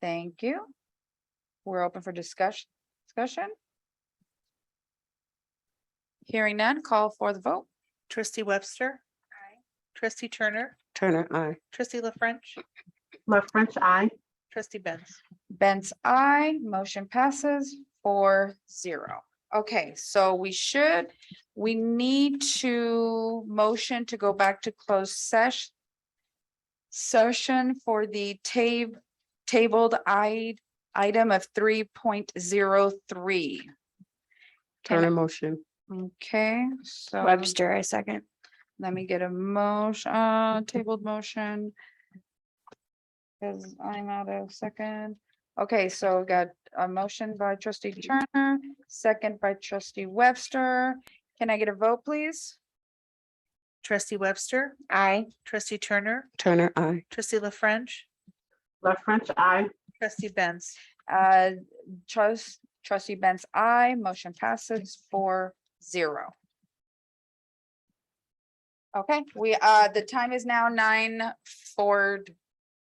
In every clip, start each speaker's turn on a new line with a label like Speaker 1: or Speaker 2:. Speaker 1: Thank you. We're open for discussion, discussion. Hearing none, call for the vote.
Speaker 2: Trustee Webster.
Speaker 1: Aye.
Speaker 2: Trustee Turner,
Speaker 3: Turner, I.
Speaker 2: trustee La French,
Speaker 4: La French, I.
Speaker 2: trustee Benz.
Speaker 1: Benz, I, motion passes four zero. Okay, so we should, we need to motion to go back to closed sesh. Session for the tab, tabled I, item of three point zero three.
Speaker 3: Turner motion.
Speaker 1: Okay, so.
Speaker 5: Webster, I second.
Speaker 1: Let me get a motion, uh, tabled motion. Cause I'm out of second. Okay, so we got a motion by trustee Turner, second by trustee Webster. Can I get a vote, please?
Speaker 2: Trustee Webster,
Speaker 1: Aye.
Speaker 2: trustee Turner,
Speaker 3: Turner, I.
Speaker 2: trustee La French,
Speaker 4: La French, I.
Speaker 2: trustee Benz.
Speaker 1: Uh, trust, trustee Benz, I, motion passes four zero. Okay, we, uh, the time is now nine four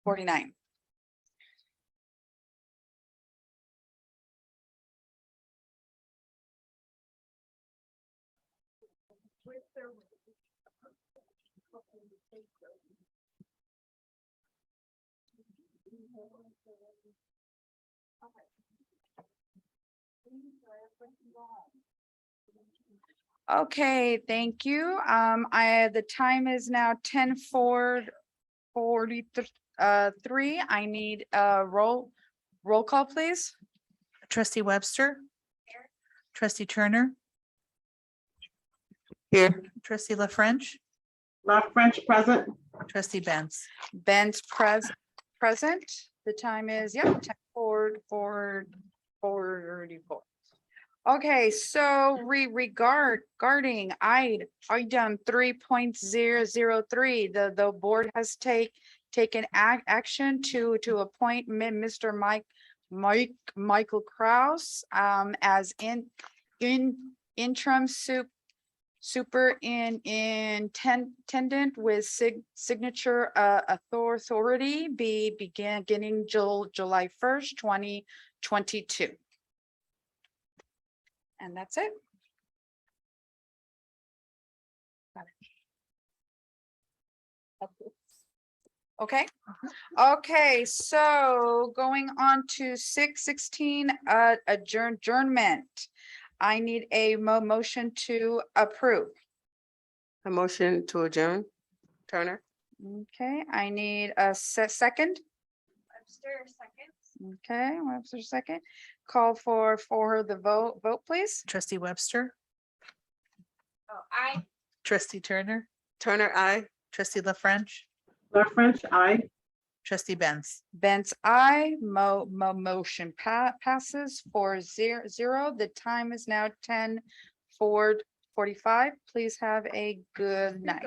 Speaker 1: forty-nine. Okay, thank you. Um, I, the time is now ten four forty, uh, three. I need a roll, roll call, please.
Speaker 2: Trustee Webster. Trustee Turner,
Speaker 3: Here.
Speaker 2: trustee La French,
Speaker 4: La French, present.
Speaker 2: trustee Benz.
Speaker 1: Ben's pres- present. The time is, yeah, ten forward, forward, forty-four. Okay, so re- regard, guarding, I, item three point zero zero three, the, the board has take, taken ac- action to, to appoint mi- Mr. Mike, Mike, Michael Kraus, um, as in, in interim soup super in intendant with sig- signature uh author- authority be began beginning Jul- July first, twenty twenty-two. And that's it. Got it. Okay, okay, so going on to six sixteen uh adjourn adjournment. I need a mo- motion to approve.
Speaker 3: A motion to adjourn. Turner.
Speaker 1: Okay, I need a se- second. Webster, second. Okay, Webster, second. Call for, for the vote, vote please.
Speaker 2: Trustee Webster.
Speaker 1: Oh,
Speaker 2: I. Trustee Turner,
Speaker 3: Turner, I.
Speaker 2: trustee La French,
Speaker 4: La French, I.
Speaker 2: trustee Benz.
Speaker 1: Benz, I, mo- mo- motion pa- passes for zero, zero. The time is now ten forty-five. Please have a good night.